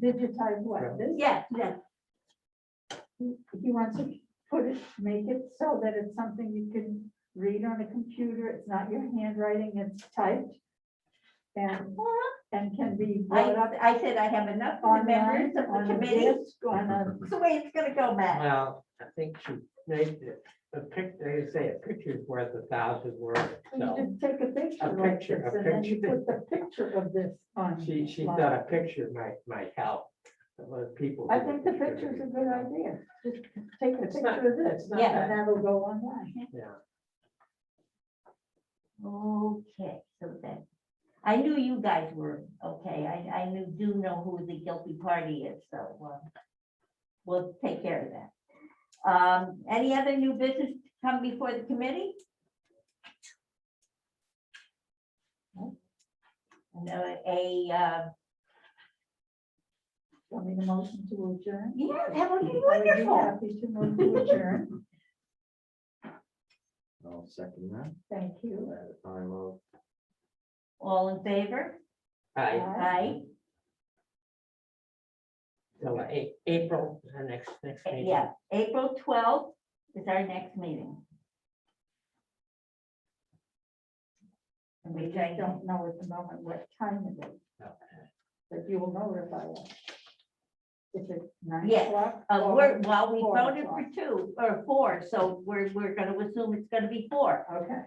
digitize what, this? Yeah, yeah. He he wants to put it, make it so that it's something you can read on a computer, it's not your handwriting, it's typed. And, and can be brought up I, I said I have Uh-huh. enough on members online, of on a the committee. disc, on a, It's the way it's gonna go, Matt. Well, I think you made it- a picture, you say a picture's worth a thousand words, you so. just take a picture like picture, this, a and then you picture. put the picture of this on. She, she line. thought a picture might, might help. a lot of people. I do think the picture's a good idea, just take a It's picture not- of this, it's not and that'll go online. Yeah, Okay, so then, I knew you guys were, okay, I, I knew, do know who the guilty party is, so, uh, we'll take care of that. Um, any other new business to come before the committee? No, a, uh, Want me to motion to adjourn? yeah, that would be Are you wonderful. happy to move to adjourn? I'll second that Thank you. at a time of. All in favor? I, Aye. Aye, so uh, A- April, is our next, next meeting. yeah, April twelfth is our next meeting. And We we just don't know at the moment what time it is, but you will notify us. If it's nine Yes, o'clock. Uh, or- we're, well, we four voted for o'clock. two or four, so we're, we're gonna assume it's gonna be four. Okay.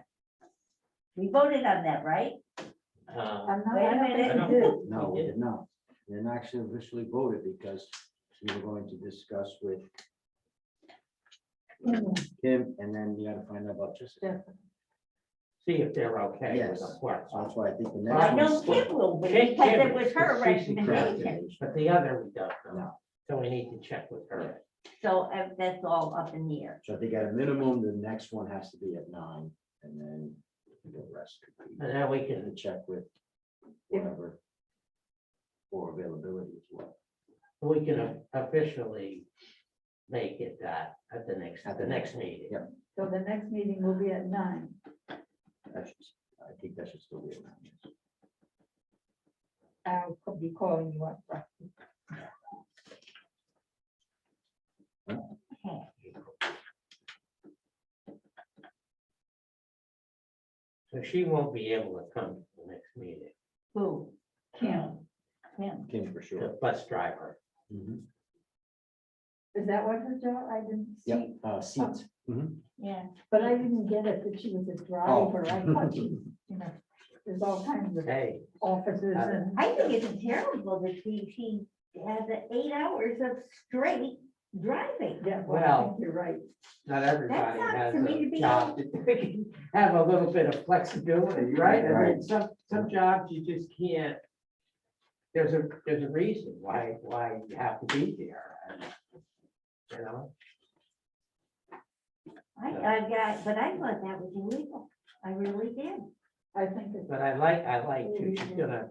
We voted on that, right? Uh, I'm not, Hmm. Wait a I don't minute. think I you don't- do. No, we Yeah. did not. We didn't actually officially voted because we were going to discuss with Mhm. Kim and then we gotta find out about Jessica. See if they're okay with the Yes. work. So that's why I think the Well, I next know one's. Kim will be, Kim- because Kim it is, was her 'cause she's the recommendation, correct. But the other, we don't know. No. So we need to check with her. so uh, that's all up in the air. So I think at a minimum, the next one has to be at nine and then the rest. could be- And then we We can can, check with whatever. For availability as well. we can officially make it that at the next, At at the the next meeting. yeah. So the next meeting will be at nine. That should, I think that should still be at nine. yes. I'll co- be calling you up. uh, right? So she won't be able to come to the next meeting, Who? Kim, Kim. Kim for sure. the bus driver. Mhm. is that what her job, I didn't Yep, see, uh, seats. Mhm. Yeah, but I didn't get it that she was a Oh. driver. I thought she, you know, there's all kinds of Hey, offices Uh, and. I think it's terrible that she, she has eight hours of straight driving. Yeah, well, I Well, think you're right. not everybody sucks has for me to a be- job that they can have a little bit of flexibility, right? I mean, Right. some, some jobs you just can't. There's a, there's a reason why, why you have to be there. and, You know, I, I got, but I thought that was illegal. I really did. I think it's but I like, I like too, Mm-hmm. she's gonna,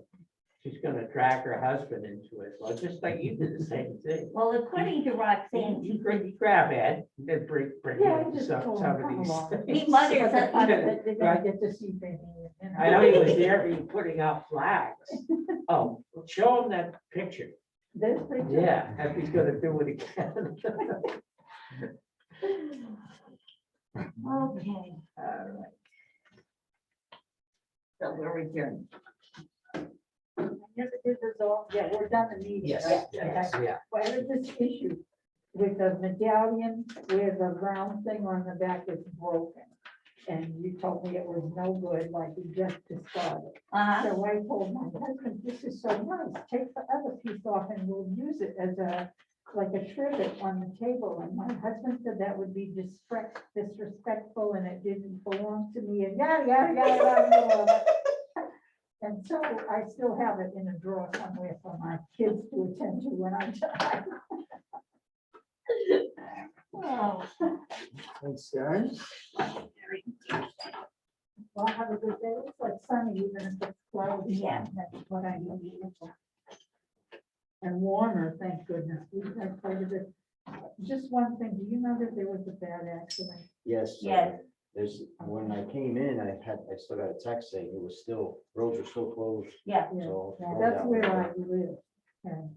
she's gonna drag her husband into it, well, just like you did the same thing. Well, according to Roxanne, You grab, you grab Ed, and then bring, bring Yeah, I him just some, told him, some "Come along." of these. he things. mutters But the that fact that They're gonna get to see baby. you I know he was there, he putting out flags. Oh, show him that picture. This picture. Yeah, if he's gonna do it again. Okay, All right. so we're adjourned. Yes, this is all, yeah, we're done the meeting. right? Okay. Yeah, Why is this issue with the medallion with the round thing on the back is broken? And you told me it was no good, like you just discarded. Uh, So I told my husband, this is so nice, take the other piece off and we'll use it as a, like a trivet on the table. And my husband said that would be disrespect- disrespectful and it didn't belong to me and yada, yada, yada, yada. yada. And so I still have it in a drawer somewhere for my kids to attend to when I die. oh, Thanks, Darren. Well, have a good day. It's like sunny even if it's cloudy. Yeah. That's what I need. And warmer, thank goodness. We've had quite a bit. Just one thing, do you know that there was a bad accident? Yes. uh, Yes. There's, when I came in, I had, I still got a text saying it was still, roads were still closed, Yeah. Yeah, so. That's where I live. And